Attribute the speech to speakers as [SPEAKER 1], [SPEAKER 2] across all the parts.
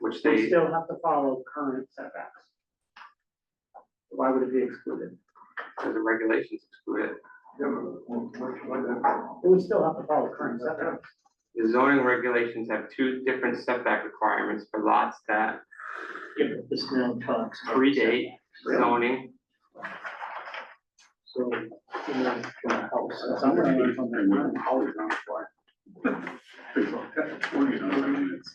[SPEAKER 1] which
[SPEAKER 2] we
[SPEAKER 1] they,
[SPEAKER 2] still have to follow current setbacks. Why would it be excluded?
[SPEAKER 1] because uh, the regulations exclude it.
[SPEAKER 2] It would still have to follow current setbacks.
[SPEAKER 1] The zoning regulations have two different setback requirements for lots that
[SPEAKER 3] Yeah, but this now talks. about
[SPEAKER 1] predate zoning.
[SPEAKER 2] So, you know, from a house, that's not gonna be from
[SPEAKER 4] They wouldn't
[SPEAKER 2] that.
[SPEAKER 4] call it on Or, you know, I mean, it's,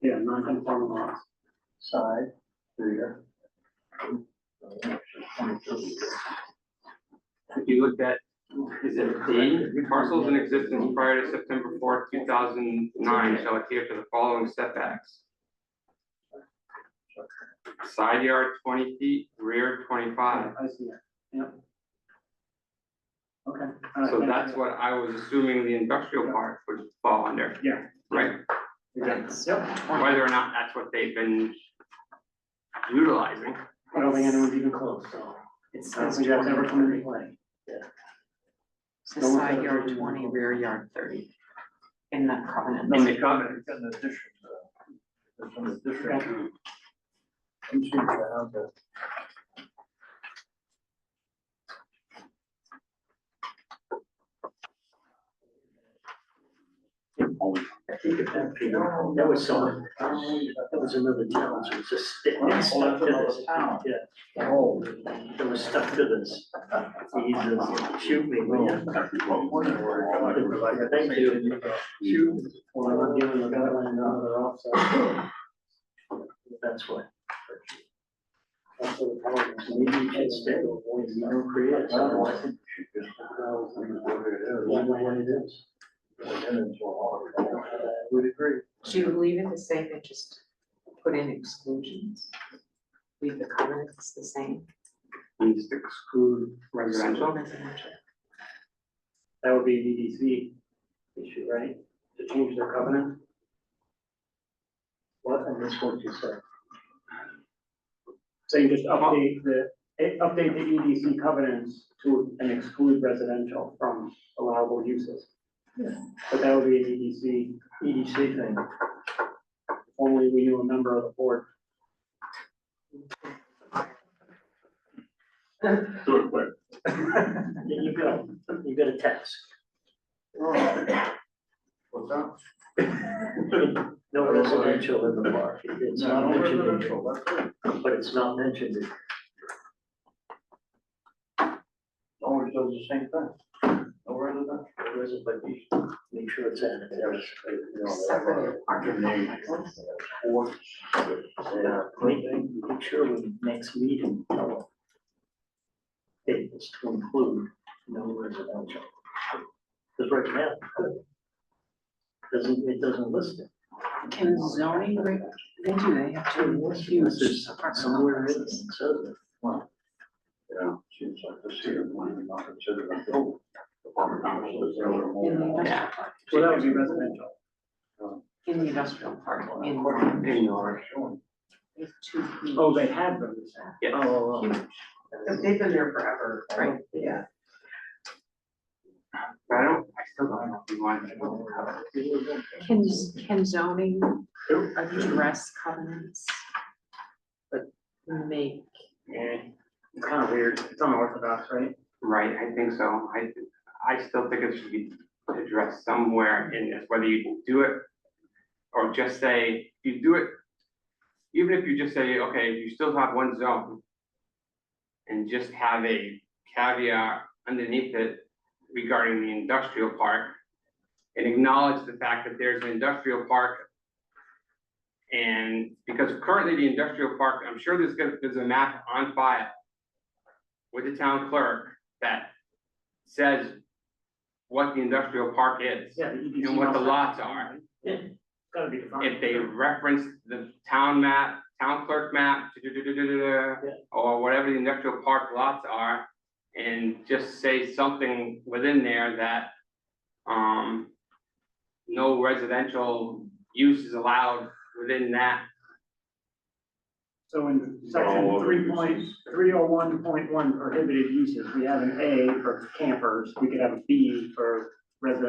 [SPEAKER 2] Yeah, non-conforming lots.
[SPEAKER 3] Side, rear.
[SPEAKER 1] If you looked at, is it D, parcels in existence prior to September fourth, two thousand nine shall adhere to the following setbacks. Side yard twenty feet, rear twenty-five.
[SPEAKER 2] I see that, yep. Okay. all right,
[SPEAKER 1] So
[SPEAKER 2] thank
[SPEAKER 1] that's
[SPEAKER 2] you.
[SPEAKER 1] what I was assuming the industrial park would fall under,
[SPEAKER 2] Yeah.
[SPEAKER 1] right?
[SPEAKER 2] Yep,
[SPEAKER 1] Whether or not that's what they've been utilizing.
[SPEAKER 2] I don't think anyone's even close, so.
[SPEAKER 5] It's,
[SPEAKER 2] I don't
[SPEAKER 5] it's
[SPEAKER 2] think that's ever come into
[SPEAKER 5] twenty,
[SPEAKER 2] play.
[SPEAKER 5] it's a
[SPEAKER 2] No one
[SPEAKER 5] side
[SPEAKER 2] says
[SPEAKER 5] yard
[SPEAKER 2] it's
[SPEAKER 5] twenty,
[SPEAKER 2] twenty.
[SPEAKER 5] rear yard thirty. In that covenant.
[SPEAKER 1] In the covenant.
[SPEAKER 3] It's an addition, uh, it's an addition.
[SPEAKER 2] Okay.
[SPEAKER 3] Two sheets around the-
[SPEAKER 4] always
[SPEAKER 6] That was some, that was another challenge, it was just stick- it stuck to this.
[SPEAKER 3] Oh.
[SPEAKER 6] It was stuck to this. He just shoot me, will ya?
[SPEAKER 4] exactly what we want.
[SPEAKER 6] Thank you. Shoot.
[SPEAKER 2] Well, I'm giving the guideline now, they're offset,
[SPEAKER 6] That's why.
[SPEAKER 2] that's what the problem is.
[SPEAKER 6] Maybe you should stay, avoid, you don't create, it, otherwise it
[SPEAKER 3] Well,
[SPEAKER 6] won't know what it is.
[SPEAKER 3] Would agree.
[SPEAKER 5] Do you leave it the same and just put in exclusions? Leave the covenants the same?
[SPEAKER 1] And just exclude residential.
[SPEAKER 5] Residential.
[SPEAKER 2] That would be a DDC issue, right? To change their covenant?
[SPEAKER 6] What, I missed what you said.
[SPEAKER 2] So you just update the, eh, update the EDC covenants to, and exclude residential from allowable uses. But that would be a DDC, EDC E thing. If Only we knew a member of the board.
[SPEAKER 4] Do it quick.
[SPEAKER 6] You got, you got a task. oh.
[SPEAKER 3] What's that?
[SPEAKER 6] No residential in the park. It's not mentioned in the but it's not mentioned in
[SPEAKER 3] Always does the same thing. No residential.
[SPEAKER 6] There is, but you should make sure it's in there.
[SPEAKER 5] Separate apartment complexes.
[SPEAKER 6] Yeah, make, make sure when next meeting, tell them. Hey, it's to include no residential. Because right now, doesn't, it doesn't list it.
[SPEAKER 5] Can zoning, reg- they do, they have two
[SPEAKER 6] Unless
[SPEAKER 5] huge
[SPEAKER 6] there's
[SPEAKER 5] apartment
[SPEAKER 6] Somewhere written,
[SPEAKER 5] complexes.
[SPEAKER 6] it says it.
[SPEAKER 4] Yeah, seems like this here, might be not considered a building. Apartment complexes, they're a little more-
[SPEAKER 5] In the industrial,
[SPEAKER 2] So that would be residential.
[SPEAKER 5] in the industrial park, in
[SPEAKER 1] Indoor.
[SPEAKER 5] there's two huge.
[SPEAKER 2] Oh, they had them.
[SPEAKER 1] Yeah.
[SPEAKER 6] Oh,
[SPEAKER 5] Huge. They've been there forever, right? Yeah.
[SPEAKER 1] But I don't, I still don't know if you want to.
[SPEAKER 5] Can, can zoning address covenants? But make,
[SPEAKER 2] It's kind of weird, it's unorthodox, right?
[SPEAKER 1] Right, I think so. I, I still think it should be addressed somewhere in this, whether you do it or just say, you do it, even if you just say, okay, you still have one zone and just have a caveat underneath it regarding the industrial park and acknowledge the fact that there's an industrial park. And because currently the industrial park, I'm sure there's gonna, there's a map on file with the town clerk that says what the industrial park is.
[SPEAKER 2] Yeah, the EDC.
[SPEAKER 1] And what the
[SPEAKER 2] must-
[SPEAKER 1] lots are.
[SPEAKER 2] Yeah, it's gotta be defined.
[SPEAKER 1] If they reference the town map, town clerk map,
[SPEAKER 2] Yeah.
[SPEAKER 1] or whatever the industrial park lots are, and just say something within there that, um, no residential use is allowed within that.
[SPEAKER 2] So in
[SPEAKER 4] All
[SPEAKER 2] section
[SPEAKER 4] other
[SPEAKER 2] three point,
[SPEAKER 4] uses.
[SPEAKER 2] three oh one point one prohibited uses, we have an A for campers, we could have a B for residential